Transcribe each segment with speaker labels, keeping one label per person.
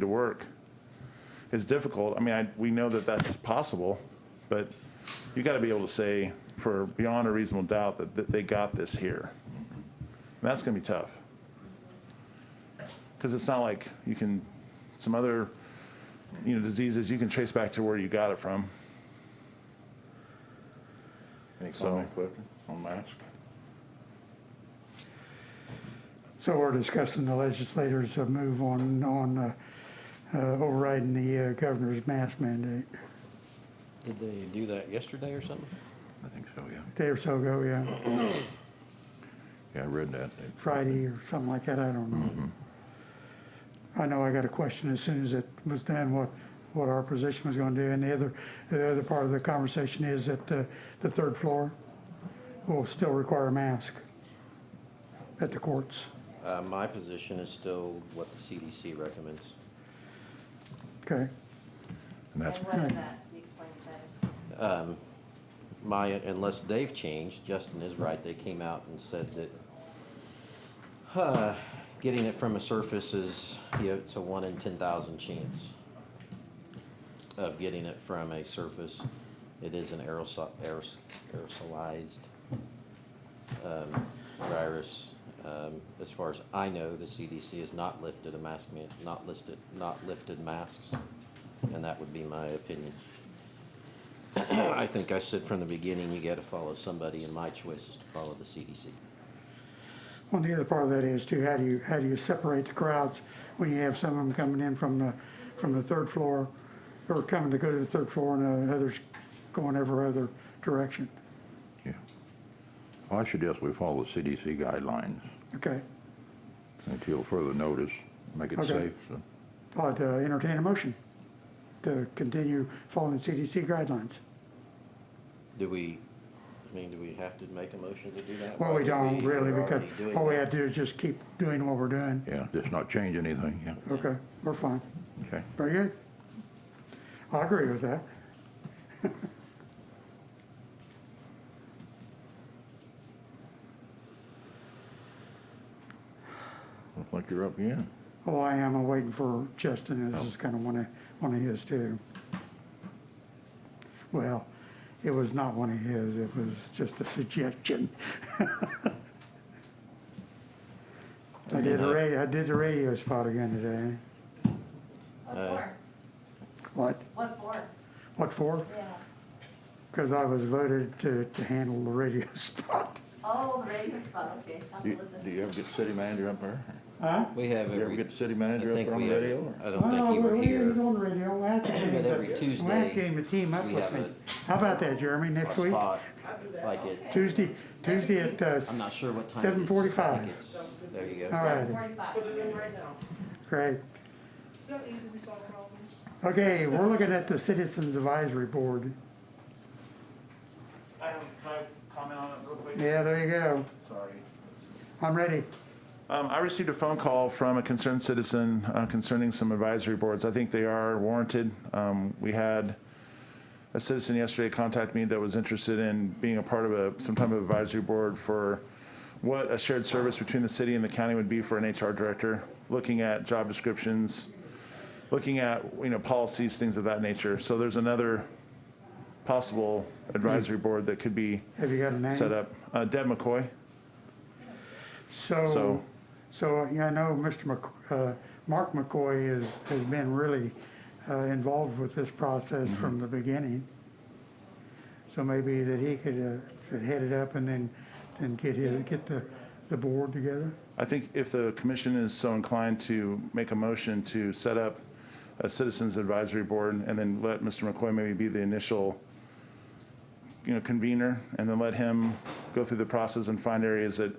Speaker 1: to work is difficult. I mean, I, we know that that's possible, but you got to be able to say for beyond a reasonable doubt that, that they got this here. And that's going to be tough. Because it's not like you can, some other, you know, diseases, you can trace back to where you got it from.
Speaker 2: Any
Speaker 1: So-
Speaker 2: comment, Clifton, on mask?
Speaker 3: So we're discussing the legislators' uh, move on, on uh, uh, overriding the uh, governor's mask mandate.
Speaker 4: Did they do that yesterday or something?
Speaker 2: I think so, yeah.
Speaker 3: Day or so ago, yeah,
Speaker 2: Yeah, I read that. They-
Speaker 3: Friday or something like that, I don't know. I know I got a question as soon as it was done, what, what our position was gonna do. And the other, the other part of the conversation is that uh, the third floor will still require a mask at the courts.
Speaker 4: Uh, my position is still what the CDC recommends.
Speaker 3: Okay,
Speaker 2: And that's,
Speaker 5: And what is that? Can you explain that?
Speaker 4: My, unless they've changed, Justin is right, they came out and said that, uh, getting it from a surface is, you know, it's a one in ten thousand chance of getting it from a surface. It is an aerosol, aeros- aerosolized, um, virus. Um, as far as I know, the CDC has not lifted a mask man, not listed, not lifted masks, and that would be my opinion. I think I said from the beginning, you gotta follow somebody, and my choice is to follow the CDC.
Speaker 3: Well, the other part of that is too, how do you, how do you separate the crowds when you have some of them coming in from the, from the third floor? Or coming to go to the third floor and uh, others going every other direction?
Speaker 2: yeah. Well, I suggest we follow the CDC guidelines
Speaker 3: Okay,
Speaker 2: until further notice, make it
Speaker 3: Okay.
Speaker 2: safe, so.
Speaker 3: I'd uh, entertain a motion to continue following CDC guidelines.
Speaker 4: Do we, I mean, do we have to make a motion to do that?
Speaker 3: Well,
Speaker 4: Why
Speaker 3: we
Speaker 4: do
Speaker 3: don't
Speaker 4: We're
Speaker 3: really, because
Speaker 4: already doing
Speaker 3: all we
Speaker 4: that.
Speaker 3: have to do is just keep doing what we're doing.
Speaker 2: Yeah, just not change anything, yeah,
Speaker 3: Okay, we're fine.
Speaker 2: okay.
Speaker 3: Very good. I agree with that.
Speaker 2: Looks like you're up again.
Speaker 3: Oh, I am, I'm waiting for Justin, this is kind of one of, one of his too. Well, it was not one of his, it was just a suggestion. I did a radio, I did the radio spot again today.
Speaker 5: What
Speaker 4: Uh,
Speaker 5: for?
Speaker 3: What,
Speaker 5: What for?
Speaker 3: what for?
Speaker 5: Yeah.
Speaker 3: Because I was voted to, to handle the radio spot.
Speaker 5: Oh, the radio spot, okay, I'll
Speaker 2: Do
Speaker 5: listen.
Speaker 2: do you ever get city manager up there?
Speaker 3: Huh?
Speaker 4: We have
Speaker 2: Do you ever
Speaker 4: every.
Speaker 2: get the city
Speaker 4: I
Speaker 2: manager up
Speaker 4: think
Speaker 2: there on
Speaker 4: we
Speaker 2: the
Speaker 4: have-
Speaker 2: radio? or-
Speaker 4: I don't think
Speaker 3: Oh, Well,
Speaker 4: you
Speaker 3: we-
Speaker 4: were
Speaker 3: we was
Speaker 4: here.
Speaker 3: on the radio, we'll have to get him
Speaker 4: But
Speaker 3: to-
Speaker 4: every
Speaker 3: We'll have
Speaker 4: Tuesday,
Speaker 3: to get him to team up
Speaker 4: we
Speaker 3: with
Speaker 4: have
Speaker 3: me.
Speaker 4: a-
Speaker 3: How about that, Jeremy, next
Speaker 4: A
Speaker 3: week?
Speaker 4: spot, like it,
Speaker 3: Tuesday, Tuesday at, uh,
Speaker 4: I'm not sure what time. it is.
Speaker 3: 7:45.
Speaker 4: I think it's- There you
Speaker 3: all
Speaker 4: go.
Speaker 3: right,
Speaker 5: Forty-five.
Speaker 3: great.
Speaker 6: It's not easy, we solve problems.
Speaker 3: Okay, we're looking at the Citizens Advisory Board.
Speaker 1: I have, can I comment on it real quick?
Speaker 3: Yeah, there you go.
Speaker 1: Sorry.
Speaker 3: I'm ready.
Speaker 1: Um, I received a phone call from a concerned citizen uh, concerning some advisory boards. I think they are warranted. Um, we had a citizen yesterday contact me that was interested in being a part of a, some type of advisory board for what a shared service between the city and the county would be for an HR director, looking at job descriptions, looking at, you know, policies, things of that nature. So there's another possible advisory board that could be
Speaker 3: Have you got a name?
Speaker 1: set up. Uh, Deb McCoy,
Speaker 3: So,
Speaker 1: So-
Speaker 3: so, yeah, I know Mr. Mc, uh, Mark McCoy is, has been really, uh, involved with this process from
Speaker 1: Mm-hmm.
Speaker 3: the beginning. So maybe that he could, uh, head it up and then, then get his, get the, the board together.
Speaker 1: I think if the commission is so inclined to make a motion to set up a citizens advisory board and then let Mr. McCoy maybe be the initial, you know, convener and then let him go through the process and find areas that,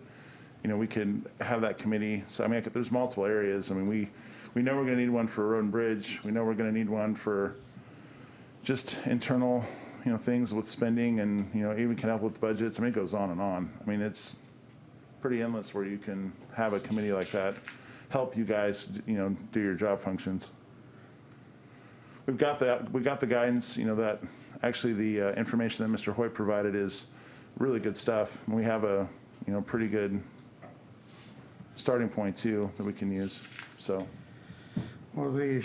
Speaker 1: you know, we can have that committee. So I mean, I could- there's multiple areas. I mean, we, we know we're going to need one for road and bridge. We know we're going to need one for just internal, you know, things with spending and, you know, even can help with budgets. I mean, it goes on and on. I mean, it's, pretty endless where you can have a committee like that help you guys, you know, do your job functions. We've got that, we got the guidance, you know, that, actually, the uh, information that Mr. Hoyt provided is really good stuff. And we have a, you know, pretty good starting point too that we can use, so.
Speaker 3: Well, the